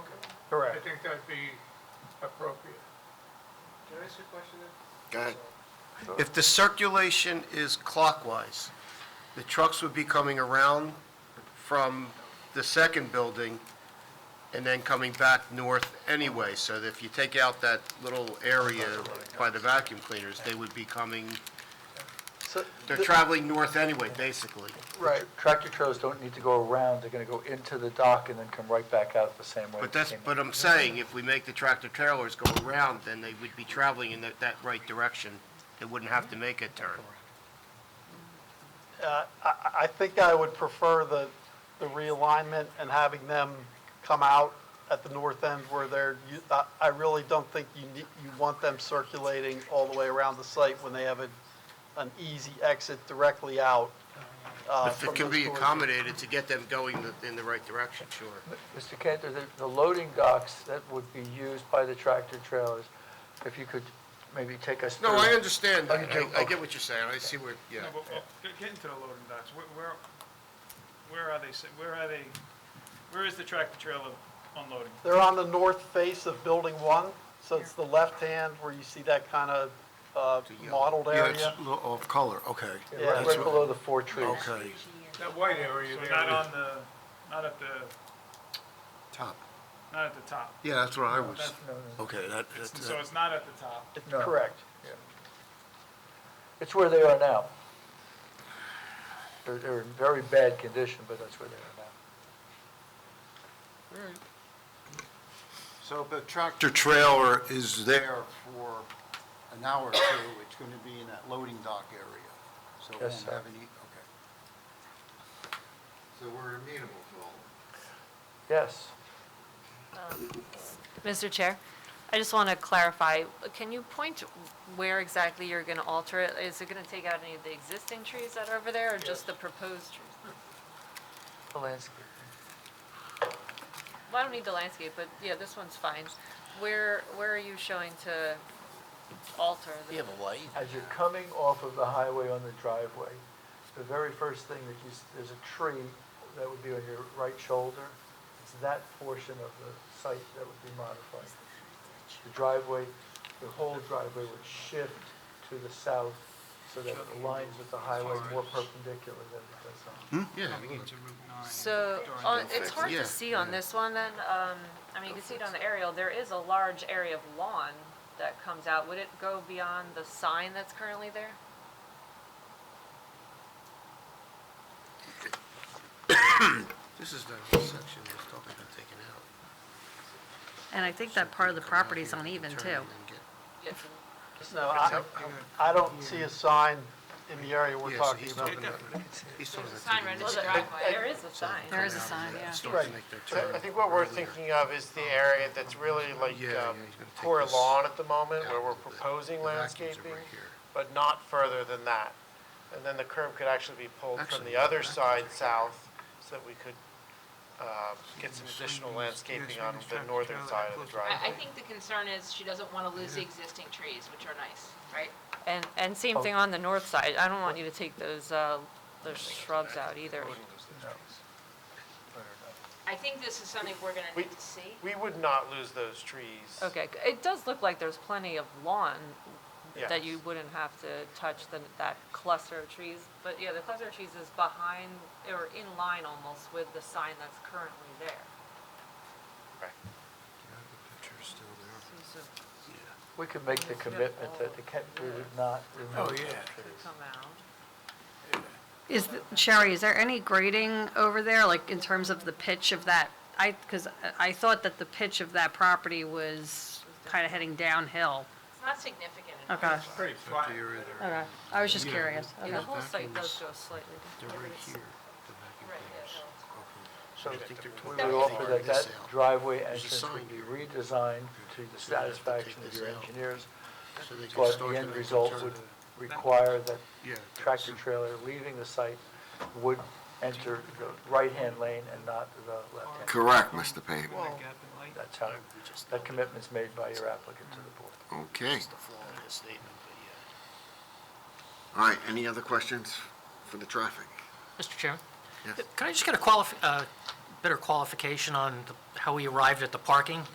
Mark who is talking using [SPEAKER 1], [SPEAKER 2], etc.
[SPEAKER 1] Correct.
[SPEAKER 2] I think that'd be appropriate.
[SPEAKER 3] Can I ask you a question then?
[SPEAKER 4] Go ahead. If the circulation is clockwise, the trucks would be coming around from the second building and then coming back north anyway. So that if you take out that little area by the vacuum cleaners, they would be coming,
[SPEAKER 1] So
[SPEAKER 4] they're
[SPEAKER 1] the-
[SPEAKER 4] traveling north anyway, basically.
[SPEAKER 1] Right, tractor trailers don't need to go around, they're gonna go into the dock and then come right back out the same way.
[SPEAKER 4] But
[SPEAKER 1] they
[SPEAKER 4] that's,
[SPEAKER 1] came in.
[SPEAKER 4] but I'm saying, if we make the tractor trailers go around, then they would be traveling in that, that right direction. They wouldn't have to make a turn.
[SPEAKER 5] Uh, I I think I would prefer the the realignment and having them come out at the north end where they're, you- I- I really don't think you need, you want them circulating all the way around the site when they have a- an easy exit directly out. uh,
[SPEAKER 4] If
[SPEAKER 5] from
[SPEAKER 4] it can
[SPEAKER 5] those
[SPEAKER 4] be
[SPEAKER 5] doors.
[SPEAKER 4] accommodated to get them going the- in the right direction, sure.
[SPEAKER 1] Mr. Cantor, the, the loading docks that would be used by the tractor trailers, if you could maybe take us through.
[SPEAKER 4] No, I understand. that.
[SPEAKER 1] Okay,
[SPEAKER 4] I I get what you're saying. I see where, yeah.
[SPEAKER 3] No, but, uh, get- get into the loading docks, where, where, where are they, sit- where are they, where is the tractor trailer unloading?
[SPEAKER 5] They're on the north face of Building 1, so it's the left hand where you see that kind of
[SPEAKER 4] uh,
[SPEAKER 5] mottled
[SPEAKER 6] Yeah, it's
[SPEAKER 5] area.
[SPEAKER 6] a little off color, okay.
[SPEAKER 1] Yeah, Right right below the four trees.
[SPEAKER 6] Okay,
[SPEAKER 2] That white area
[SPEAKER 3] So
[SPEAKER 2] there.
[SPEAKER 3] not
[SPEAKER 2] is-
[SPEAKER 3] on the, not at the,
[SPEAKER 6] top.
[SPEAKER 3] not at the top,
[SPEAKER 6] Yeah, that's what I was,
[SPEAKER 1] That's- no, no, no.
[SPEAKER 6] okay, that, that-
[SPEAKER 3] so it's not at the top.
[SPEAKER 5] It's
[SPEAKER 1] No.
[SPEAKER 5] Correct.
[SPEAKER 1] It's where they are now. They're, they're in very bad condition, but that's where they are now.
[SPEAKER 7] So the tractor trailer is there for an hour or two, it's going to be in that loading dock area. So it
[SPEAKER 1] Yes,
[SPEAKER 7] won't
[SPEAKER 1] sir.
[SPEAKER 7] have any, okay. So we're amenable to all
[SPEAKER 1] Yes.
[SPEAKER 8] Mr. Chair, I just want to clarify, can you point where exactly you're going to alter it? Is it going to take out any of the existing trees that are over there, or just the proposed trees?
[SPEAKER 1] The landscape.
[SPEAKER 8] Well, I don't need the landscape, but yeah, this one's fine. Where, where are you showing to alter? the-
[SPEAKER 1] As you're coming off of the highway on the driveway, the very first thing that you, s- there's a tree that would be on your right shoulder. It's that portion of the site that would be modified. The driveway, the whole driveway would shift to the south so that it aligns with the highway more perpendicular than it does on.
[SPEAKER 4] Yeah.
[SPEAKER 8] So, on- it's hard
[SPEAKER 4] Yeah,
[SPEAKER 8] to see on this one then, um, I mean, you can see it on the aerial, there is a large area of lawn that comes out. Would it go beyond the sign that's currently there?
[SPEAKER 4] This is the section I was talking about taking out.
[SPEAKER 9] And I think that part of the property's uneven
[SPEAKER 4] Turn
[SPEAKER 9] too.
[SPEAKER 4] and then get-
[SPEAKER 8] Yes.
[SPEAKER 5] No, I I don't see a sign in the area we're
[SPEAKER 4] Yeah, so
[SPEAKER 5] talking
[SPEAKER 4] he's
[SPEAKER 5] about.
[SPEAKER 4] talking about, he's talking about. taking
[SPEAKER 8] Well,
[SPEAKER 4] this
[SPEAKER 8] the- There is a sign.
[SPEAKER 9] There is a sign, yeah.
[SPEAKER 4] start to
[SPEAKER 5] Right.
[SPEAKER 4] make their
[SPEAKER 10] I
[SPEAKER 4] turn
[SPEAKER 10] think what we're
[SPEAKER 4] earlier.
[SPEAKER 10] thinking of is the area that's really like
[SPEAKER 4] Yeah, yeah,
[SPEAKER 10] um,
[SPEAKER 4] he's gonna take
[SPEAKER 10] poor
[SPEAKER 4] this
[SPEAKER 10] lawn at the moment,
[SPEAKER 4] out
[SPEAKER 10] where we're
[SPEAKER 4] of the-
[SPEAKER 10] proposing
[SPEAKER 4] the vacuums are right
[SPEAKER 10] landscaping,
[SPEAKER 4] here.
[SPEAKER 10] but not further than that. And then the curb could actually be pulled from
[SPEAKER 4] Actually,
[SPEAKER 10] the
[SPEAKER 4] no,
[SPEAKER 10] other
[SPEAKER 4] vacuums
[SPEAKER 10] side south, so that we could uh, get some additional landscaping on the northern side of the driveway.
[SPEAKER 11] I, I think the concern is she doesn't want to lose the existing trees, which are nice, right?
[SPEAKER 8] And, and same thing on the north side, I don't want you to take those, uh, those shrubs out either.
[SPEAKER 11] I think this is something we're gonna
[SPEAKER 10] We-
[SPEAKER 11] need to see.
[SPEAKER 10] We would not lose those trees.
[SPEAKER 8] Okay, c- it does look like there's plenty of lawn
[SPEAKER 10] Yes.
[SPEAKER 8] that you wouldn't have to touch the, that cluster of trees, but yeah, the cluster of trees is behind, or in line almost with the sign that's currently there.
[SPEAKER 10] Right.
[SPEAKER 8] So you should
[SPEAKER 1] We could make the commitment that the, ca- we would not remove
[SPEAKER 2] Oh,
[SPEAKER 1] the
[SPEAKER 2] yeah.
[SPEAKER 1] trees.
[SPEAKER 8] come out.
[SPEAKER 9] Is, th- Sherry, is there any grading over there, like in terms of the pitch of that? I, because I thought that the pitch of that property was kind of heading downhill.
[SPEAKER 11] It's not significant at all.
[SPEAKER 9] Okay,
[SPEAKER 2] It's pretty flat.
[SPEAKER 9] okay. I was just curious.
[SPEAKER 8] Yeah, the
[SPEAKER 9] Okay.
[SPEAKER 8] whole site does go slightly
[SPEAKER 4] They're
[SPEAKER 8] different.
[SPEAKER 4] right here, the vacuum
[SPEAKER 11] Right, yeah,
[SPEAKER 4] cleaners.
[SPEAKER 1] So
[SPEAKER 11] no.
[SPEAKER 4] I think they're
[SPEAKER 1] we
[SPEAKER 4] twenty.
[SPEAKER 1] would offer that that driveway
[SPEAKER 4] There's a
[SPEAKER 1] entrance
[SPEAKER 4] sign
[SPEAKER 1] would be
[SPEAKER 4] here.
[SPEAKER 1] redesigned
[SPEAKER 4] So
[SPEAKER 1] to the
[SPEAKER 4] you'd have to
[SPEAKER 1] satisfaction
[SPEAKER 4] take
[SPEAKER 1] of your
[SPEAKER 4] this out.
[SPEAKER 1] engineers,
[SPEAKER 4] So they can
[SPEAKER 1] but
[SPEAKER 4] start
[SPEAKER 1] the
[SPEAKER 4] to
[SPEAKER 1] end
[SPEAKER 4] make a
[SPEAKER 1] result
[SPEAKER 4] turn.
[SPEAKER 1] would require that
[SPEAKER 4] Yeah.
[SPEAKER 1] tractor trailer leaving the site would enter the right-hand lane and not the left-hand.
[SPEAKER 6] Correct, Mr. Pavin.
[SPEAKER 1] That's how, that commitment's made by your applicant to the board.
[SPEAKER 4] Okay.
[SPEAKER 6] All right, any other questions for the traffic?
[SPEAKER 12] Mr. Chairman?
[SPEAKER 6] Yes.
[SPEAKER 12] Can I just get a qualif, uh, better qualification on the- how we arrived at the parking?